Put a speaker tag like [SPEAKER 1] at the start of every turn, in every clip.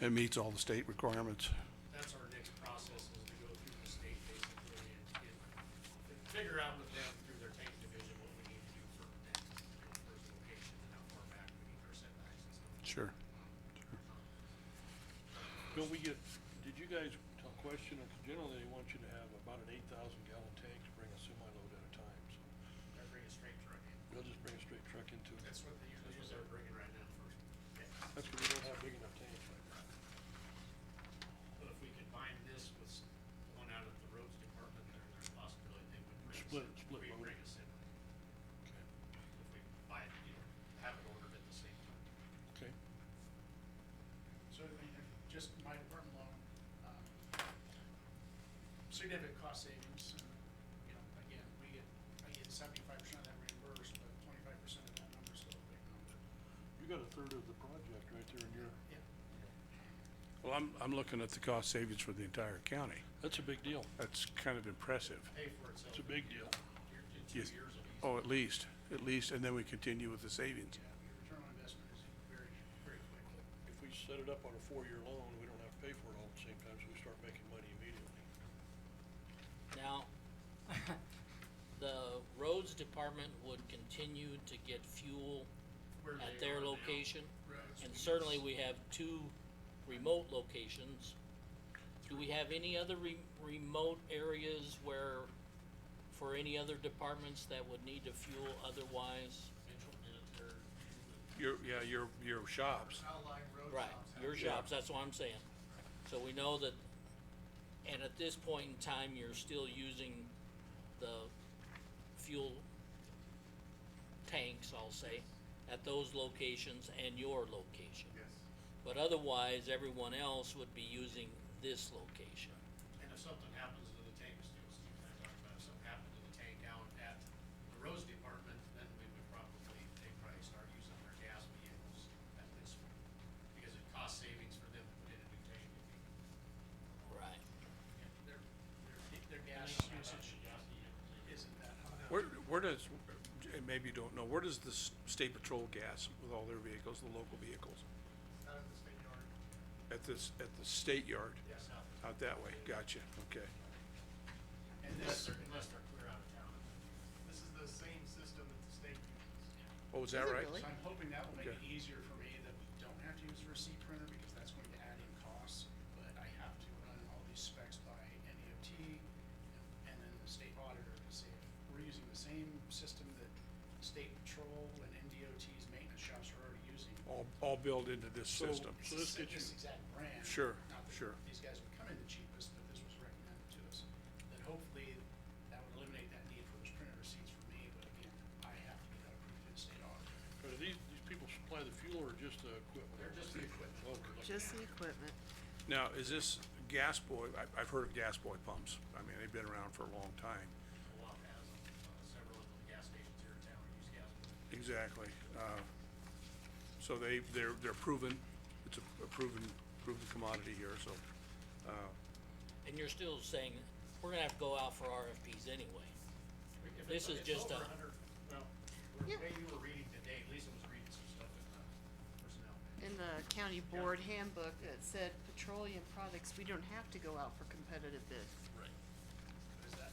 [SPEAKER 1] It meets all the state requirements.
[SPEAKER 2] That's our next process is to go through the state basically and get, figure out with them through their tank division what we need to do for that first location and how far back we need our setbacks and stuff. Um,
[SPEAKER 1] Sure.
[SPEAKER 3] Don't we get, did you guys tell question, or generally they want you to have about an eight thousand gallon tank to bring a semi load at a time, so
[SPEAKER 2] They're bringing a straight truck in.
[SPEAKER 3] they'll just bring a straight truck into it.
[SPEAKER 2] That's what they usually, is they're bringing right now for,
[SPEAKER 3] That's because we don't have big enough tanks right now.
[SPEAKER 2] but if we combine this with s- one out of the roads department, there, there's a possibility they would bring. a
[SPEAKER 3] Split-
[SPEAKER 2] sem-
[SPEAKER 3] split
[SPEAKER 2] we'd
[SPEAKER 3] load.
[SPEAKER 2] Bring a semi, if we buy it, you know, have it ordered at the same time.
[SPEAKER 3] Okay,
[SPEAKER 4] So, I mean, if just my department alone, um, significant cost savings, and, you know, again, we get, I get seventy-five percent of that reimbursed, but twenty-five percent of that number's still a big number.
[SPEAKER 3] you got a third of the project right there in your,
[SPEAKER 4] Yeah.
[SPEAKER 1] Well, I'm, I'm looking at the cost savings for the entire county.
[SPEAKER 3] that's a big deal,
[SPEAKER 1] That's kind of impressive.
[SPEAKER 2] Pay for itself.
[SPEAKER 3] it's a big deal.
[SPEAKER 2] Year, two
[SPEAKER 1] Yes.
[SPEAKER 2] years of easy.
[SPEAKER 1] Oh, at least, at least, and then we continue with the
[SPEAKER 4] Yeah,
[SPEAKER 1] savings.
[SPEAKER 4] your return on investment is very, very quick.
[SPEAKER 3] If we set it up on a four-year loan, we don't have to pay for it all at the same time, so we start making money immediately.
[SPEAKER 5] Now, the roads department would continue to get fuel
[SPEAKER 2] Where
[SPEAKER 5] at
[SPEAKER 2] they are
[SPEAKER 5] their
[SPEAKER 2] now.
[SPEAKER 5] location.
[SPEAKER 4] Roads,
[SPEAKER 5] And certainly we have two remote locations. Do we have any other re- remote areas where, for any other departments that would need to fuel otherwise?
[SPEAKER 2] Mitchell did it there.
[SPEAKER 1] Your, yeah, your, your shops.
[SPEAKER 4] outlying road
[SPEAKER 5] Right,
[SPEAKER 4] shops have-
[SPEAKER 5] your
[SPEAKER 1] Yeah.
[SPEAKER 5] shops, that's what I'm saying. So we know that, and at this point in time, you're still using the fuel tanks, I'll say, at those locations and your location.
[SPEAKER 4] Yes.
[SPEAKER 5] But otherwise, everyone else would be using this location.
[SPEAKER 2] And if something happens to the tank, as Steve was kind of talking about, if something happened to the tank out at the roads department, then we would probably, they'd probably start using their gas vehicles at this point. Because it costs savings for them to put in a new tank. if they-
[SPEAKER 5] Right.
[SPEAKER 4] Their, their, their gas usage isn't that high.
[SPEAKER 1] Where, where does, and maybe you don't know, where does the s- state patrol gas with all their vehicles, the local vehicles?
[SPEAKER 4] Out of the state yard.
[SPEAKER 1] At this, at the state yard,
[SPEAKER 4] Yes.
[SPEAKER 1] out that way, gotcha, okay.
[SPEAKER 4] And this,
[SPEAKER 2] Unless they're, unless they're clear out of town.
[SPEAKER 4] this is the same system that the state uses.
[SPEAKER 1] Oh, is that right?
[SPEAKER 4] So I'm hoping that will make it
[SPEAKER 1] Okay.
[SPEAKER 4] easier for me that we don't have to use a receipt printer because that's going to add in costs. But I have to run all these specs by NEOT and then the state auditor to say, we're using the same system that state patrol and NDOT's maintenance shops are already using.
[SPEAKER 1] All, all built into this
[SPEAKER 3] So-
[SPEAKER 1] system.
[SPEAKER 4] It's the
[SPEAKER 3] so this
[SPEAKER 4] same-
[SPEAKER 3] gets you-
[SPEAKER 4] This exact brand.
[SPEAKER 1] Sure,
[SPEAKER 4] Not that
[SPEAKER 1] sure.
[SPEAKER 4] These guys would come in the cheapest, but this was recommended to us. Then hopefully that would eliminate that need for those printed receipts for me, but again, I have to get that approved in state auditor.
[SPEAKER 3] But do these, these people supply the fuel or just the equipment?
[SPEAKER 2] They're just the equipment.
[SPEAKER 3] Okay, like-
[SPEAKER 6] Just the equipment.
[SPEAKER 1] Now, is this gas boy, I, I've heard of gas boy pumps, I mean, they've been around for a long time.
[SPEAKER 2] A lot has, uh, several of the gas stations here in town use gas.
[SPEAKER 1] Exactly, uh, so they, they're, they're proven, it's a a proven, proven commodity here, so, uh,
[SPEAKER 5] And you're still saying, we're gonna have to go out for RFPs anyway.
[SPEAKER 2] If it's-
[SPEAKER 5] This is
[SPEAKER 2] it's
[SPEAKER 5] just
[SPEAKER 2] over
[SPEAKER 5] a-
[SPEAKER 2] 100 Well, the
[SPEAKER 6] Yeah.
[SPEAKER 2] way you were reading today, Lisa was reading some stuff in the personnel.
[SPEAKER 6] In the county board handbook, it said petroleum products, we don't have to go out for competitive bids.
[SPEAKER 2] Right.
[SPEAKER 4] What is that?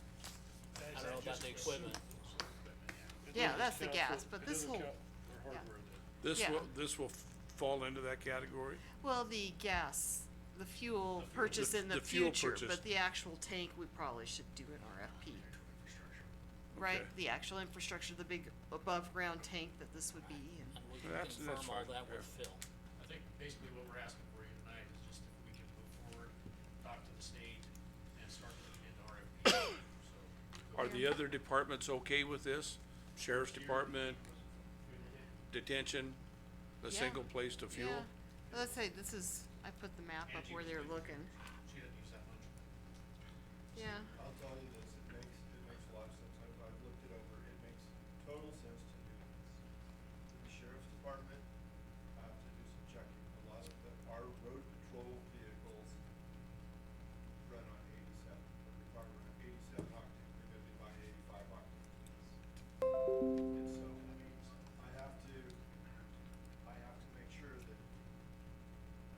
[SPEAKER 4] That
[SPEAKER 5] I
[SPEAKER 4] is
[SPEAKER 5] don't know about
[SPEAKER 4] just
[SPEAKER 5] the
[SPEAKER 4] with
[SPEAKER 5] equipment.
[SPEAKER 4] super- super equipment, yeah.
[SPEAKER 3] It
[SPEAKER 6] Yeah,
[SPEAKER 3] doesn't
[SPEAKER 6] that's the
[SPEAKER 3] count
[SPEAKER 6] gas,
[SPEAKER 3] for-
[SPEAKER 6] but
[SPEAKER 3] it
[SPEAKER 6] this
[SPEAKER 3] doesn't
[SPEAKER 6] whole-
[SPEAKER 3] count for hardware then.
[SPEAKER 1] this
[SPEAKER 6] Yeah.
[SPEAKER 1] will, this will f- fall into that category?
[SPEAKER 6] Well, the gas, the fuel
[SPEAKER 2] fuel.
[SPEAKER 6] purchase
[SPEAKER 1] The-
[SPEAKER 6] in the
[SPEAKER 1] the fuel
[SPEAKER 6] future,
[SPEAKER 1] purchase.
[SPEAKER 6] but the actual tank, we probably should do an RFP.
[SPEAKER 4] Infrastructure.
[SPEAKER 6] Right,
[SPEAKER 1] Okay.
[SPEAKER 6] the actual infrastructure, the big above-ground tank that this would be in.
[SPEAKER 5] And we can
[SPEAKER 1] That's-
[SPEAKER 5] confirm
[SPEAKER 1] that's
[SPEAKER 5] all
[SPEAKER 1] fine,
[SPEAKER 5] that
[SPEAKER 1] yeah.
[SPEAKER 5] with Phil.
[SPEAKER 2] I think basically what we're asking for you tonight is just if we can move forward, talk to the state, and start looking into RFP, so.
[SPEAKER 1] Are the other departments okay with this? Sheriff's Department, detention, a
[SPEAKER 6] Yeah.
[SPEAKER 1] single place to fuel?
[SPEAKER 6] Yeah, Well, let's say this is, I put the map up where they're looking,
[SPEAKER 2] She doesn't use that much.
[SPEAKER 6] yeah.
[SPEAKER 7] I'll tell you